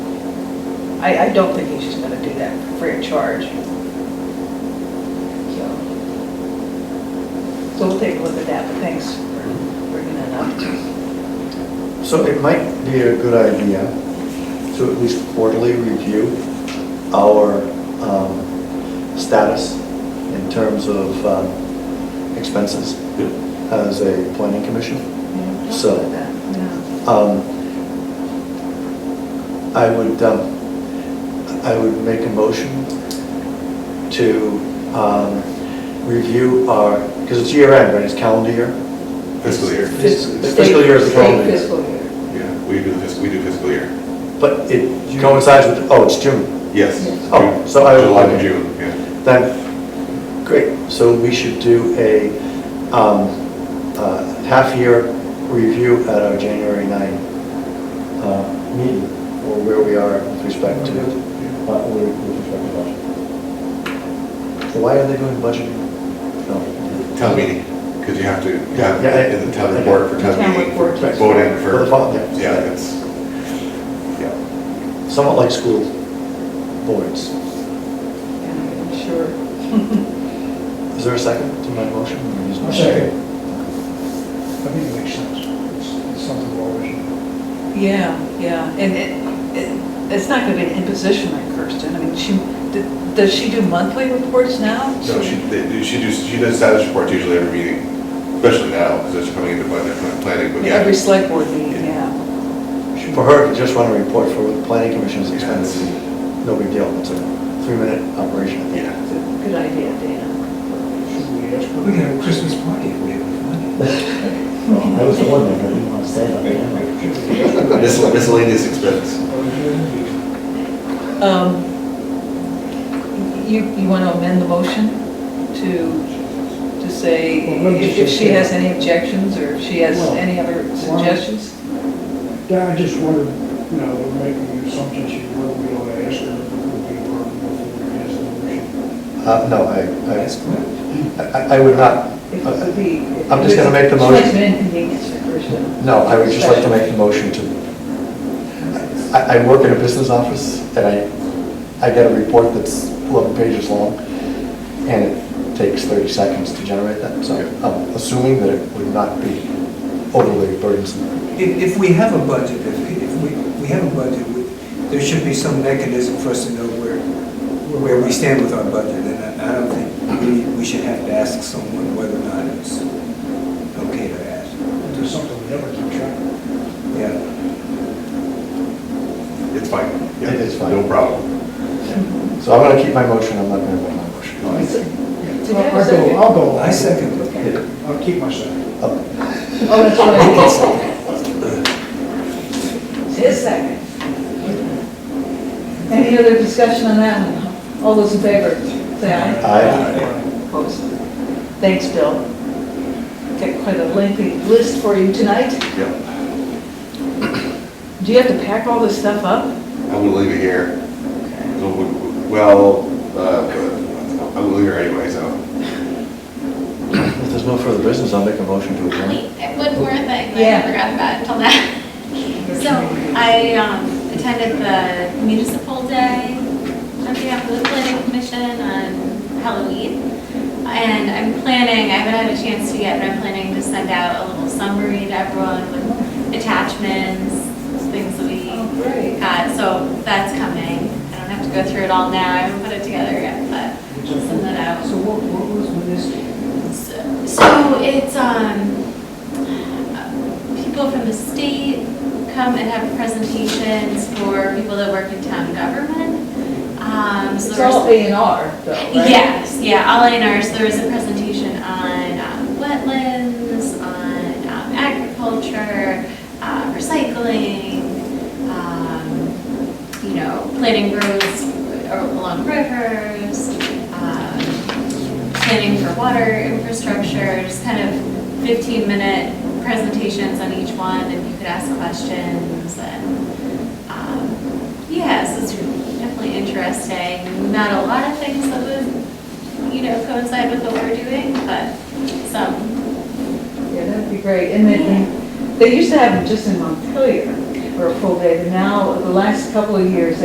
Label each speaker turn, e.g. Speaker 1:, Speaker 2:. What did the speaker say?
Speaker 1: I, I don't think he's just gonna do that free of charge. So so we'll take a look at that, but thanks for bringing that up.
Speaker 2: So it might be a good idea to at least quarterly review our um, status in terms of um, expenses as a planning commission.
Speaker 1: Yeah, we'll
Speaker 2: So-
Speaker 1: look at that, yeah.
Speaker 2: Um, I would, um, I would make a motion to um, review our, because it's year end, right, it's calendar year?
Speaker 3: Fiscal year.
Speaker 2: Fiscal-
Speaker 1: State-
Speaker 2: fiscal year is the calendar
Speaker 1: State
Speaker 2: year.
Speaker 1: fiscal year.
Speaker 3: Yeah, we do fiscal, we do fiscal year.
Speaker 2: But it coincides with, oh, it's June.
Speaker 3: Yes.
Speaker 1: Yes.
Speaker 2: Oh, so I-
Speaker 3: July to June, yeah.
Speaker 2: Then, great, so we should do a um, uh, half-year review at our January 9 uh, meeting, or where we are with respect to, uh, with with respect to budget. So Why are they doing budgeting? No.
Speaker 3: Town meeting, because you have to, you have
Speaker 2: Yeah, yeah.
Speaker 3: in the town report for town
Speaker 1: Town
Speaker 3: meeting.
Speaker 1: report.
Speaker 3: Vote in
Speaker 2: For the fall,
Speaker 3: for,
Speaker 2: yeah.
Speaker 3: yeah, it's, yeah.
Speaker 2: Somewhat like school boards.
Speaker 1: Yeah, I'm Sure.
Speaker 2: Is there a second to my motion?
Speaker 4: A second. I think it makes sense. It's- It's something we're always,
Speaker 1: Yeah, yeah, and it, it, it's not gonna be an imposition on Kirsten, I mean, she, d- does she do monthly reports now?
Speaker 3: So she, they do- she does, she does status reports usually every meeting, especially now, because it's coming into budget, kind of planning, but yeah.
Speaker 1: Every select board meeting, yeah.
Speaker 2: For her, to just run a report for the planning commission's
Speaker 3: Yeah,
Speaker 2: expense,
Speaker 3: it's-
Speaker 2: no big deal, it's a three-minute operation. I think.
Speaker 3: Yeah.
Speaker 1: Good idea, Dana.
Speaker 4: should we ask for a Christmas party if we have enough money?
Speaker 5: Well, I was the one that didn't want to stay on the island.
Speaker 4: Should we ask for a-
Speaker 3: Miscel- Miscellaneous expense.
Speaker 4: Or is it gonna be-
Speaker 1: Um, You, you wanna amend the motion to, to say
Speaker 4: Well, let me
Speaker 1: if if she
Speaker 4: just-
Speaker 1: has any objections, or if she has
Speaker 4: Well,
Speaker 1: any other suggestions?
Speaker 4: Yeah, I just wondered, you know, we're making assumptions you wouldn't be able to ask her if it would be working before we ask them.
Speaker 2: Uh, No, I, I- I, I would not, uh,
Speaker 1: If it would be-
Speaker 2: I'm just gonna make the
Speaker 1: She likes
Speaker 2: motion.
Speaker 1: an inconvenience for Kirsten.
Speaker 2: no, I would just like to make the motion to, I, I work in a business office, and I, I get a report that's 11 pages long, and it takes 30 seconds to generate that, so I'm assuming that it would not be overly burdensome.
Speaker 6: If, if we have a budget, if, if we, we have a budget, we- there should be some mechanism for us to know where, where we stand with our budget, and I, I don't think we, we should have to ask someone whether or not it's okay to ask.
Speaker 4: There's something we never keep track of.
Speaker 6: Yeah,
Speaker 3: It's fine. Yeah,
Speaker 2: It is fine.
Speaker 3: No problem.
Speaker 2: So I'm gonna keep my motion, I'm not gonna vote my motion.
Speaker 1: Did you have a
Speaker 4: I'll go-
Speaker 1: second?
Speaker 4: I'll go.
Speaker 6: I second it.
Speaker 1: Okay.
Speaker 4: I'll keep my second.
Speaker 2: Oh,
Speaker 1: Oh, that's right. His second. Any other discussion on that one? All those in favor, say aye.
Speaker 2: Aye.
Speaker 1: Opposed? Thanks, Bill. Got quite a lengthy list for you tonight.
Speaker 3: Yeah.
Speaker 1: Do you have to pack all this stuff up?
Speaker 3: I will leave it here.
Speaker 1: Okay.
Speaker 3: Well, uh, I will leave here anyway, so.
Speaker 2: If there's no further business, I'll make a motion to adjourn.
Speaker 7: Wait, One more thing,
Speaker 1: Yeah.
Speaker 7: I forgot about until now. So I um, attended the municipal day on behalf of the planning commission on Halloween. And I'm planning, I haven't had a chance to yet, but I'm planning to send out a little summary to everyone with attachments, things that we
Speaker 1: Oh, great.
Speaker 7: got. So that's coming. I don't have to go through it all now, I haven't put it together yet, but I'll send that out.
Speaker 4: So what, what was with this?
Speaker 7: So it's, um, people from the state come and have presentations for people that work in town government. Um, so
Speaker 1: It's
Speaker 7: there's-
Speaker 1: all A and R, though, right?
Speaker 7: Yes, yeah, all in ours, there was a presentation on um, wetlands, on um, agriculture, uh, recycling, um, you know, planting roads along rivers, um, planning for water infrastructure, just kind of 15-minute presentations on each one, and you could ask questions, and, um, yeah, so it's definitely interesting. Not a lot of things that would, you know, coincide with what we're doing, but some.
Speaker 1: Yeah, that'd be great. And then, they used to have them just in Montpelier for a full day, but now, the last couple of years,